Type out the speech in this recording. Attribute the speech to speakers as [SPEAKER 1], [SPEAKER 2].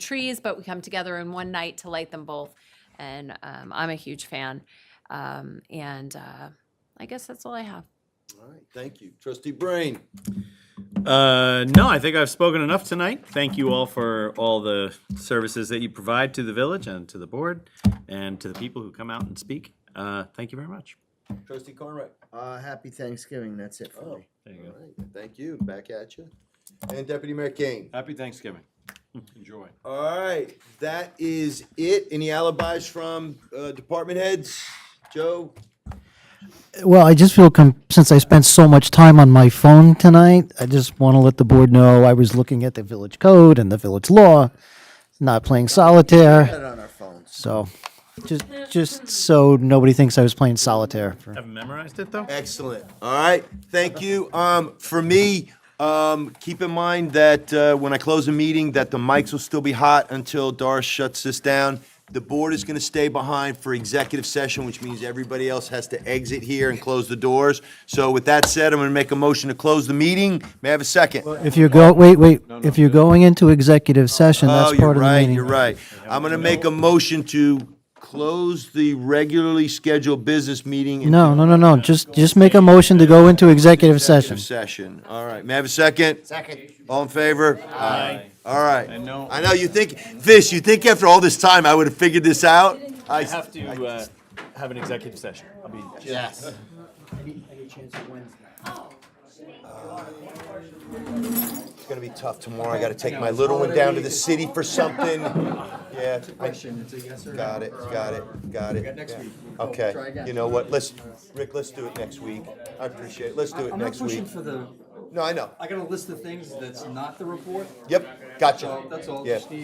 [SPEAKER 1] trees, but we come together in one night to light them both. And um, I'm a huge fan. Um, and uh, I guess that's all I have.
[SPEAKER 2] All right, thank you. Trustee Brain.
[SPEAKER 3] Uh, no, I think I've spoken enough tonight. Thank you all for all the services that you provide to the village and to the board and to the people who come out and speak. Uh, thank you very much.
[SPEAKER 2] Trustee Carnwright.
[SPEAKER 4] Uh, happy Thanksgiving. That's it for
[SPEAKER 2] Oh,
[SPEAKER 4] me.
[SPEAKER 3] There
[SPEAKER 2] all right. Thank you. Back at you. And Deputy Mayor Kane.
[SPEAKER 5] Happy Thanksgiving.
[SPEAKER 3] Hmm.
[SPEAKER 5] Enjoy.
[SPEAKER 2] All right, that is it. Any alibis from uh, department heads? Joe?
[SPEAKER 6] Well, I just feel, com- since I spent so much time on my phone tonight, I just want to let the board know I was looking at the village code and the village law, not playing
[SPEAKER 4] Got
[SPEAKER 6] solitaire,
[SPEAKER 4] it on our phones.
[SPEAKER 6] so, just, just so nobody thinks I was playing solitaire. for-
[SPEAKER 3] Haven't memorized it though?
[SPEAKER 2] Excellent. All right, thank you. Um, for me, um, keep in mind that uh, when I close a meeting, that the mics will still be hot until Doris shuts this down. The board is going to stay behind for executive session, which means everybody else has to exit here and close the doors. So with that said, I'm going to make a motion to close the meeting. May I have a second?
[SPEAKER 6] If you go, wait, wait, if you're going into executive session, that's part of the meeting.
[SPEAKER 2] Oh, You're right, you're right. I'm gonna make a motion to close the regularly scheduled business meeting. and
[SPEAKER 6] No, no, no, no, just, just make a motion to go into
[SPEAKER 2] do
[SPEAKER 6] executive session.
[SPEAKER 2] executive Session, all right. May I have a second? Second. All in favor? Aye. All right. I
[SPEAKER 5] know-
[SPEAKER 2] I know, you think, Fish, you think after all this time I would have figured this out?
[SPEAKER 5] I have to uh, have an executive session. I'll be.
[SPEAKER 2] Yes. It's gonna be tough tomorrow. I gotta take my little one down to the city for something. Yeah. Question, it's a yes or Got it, got it, got it. Next week.
[SPEAKER 4] Try
[SPEAKER 2] Okay,
[SPEAKER 4] again.
[SPEAKER 2] you know what, let's, Rick, let's do it next week. I appreciate it. Let's do it
[SPEAKER 7] I'm not
[SPEAKER 2] next week.
[SPEAKER 7] pushing for the,
[SPEAKER 2] No, I know.
[SPEAKER 7] I got a list of things that's not the report.
[SPEAKER 2] Yep, gotcha.
[SPEAKER 7] So that's all,
[SPEAKER 2] Yeah.
[SPEAKER 7] just need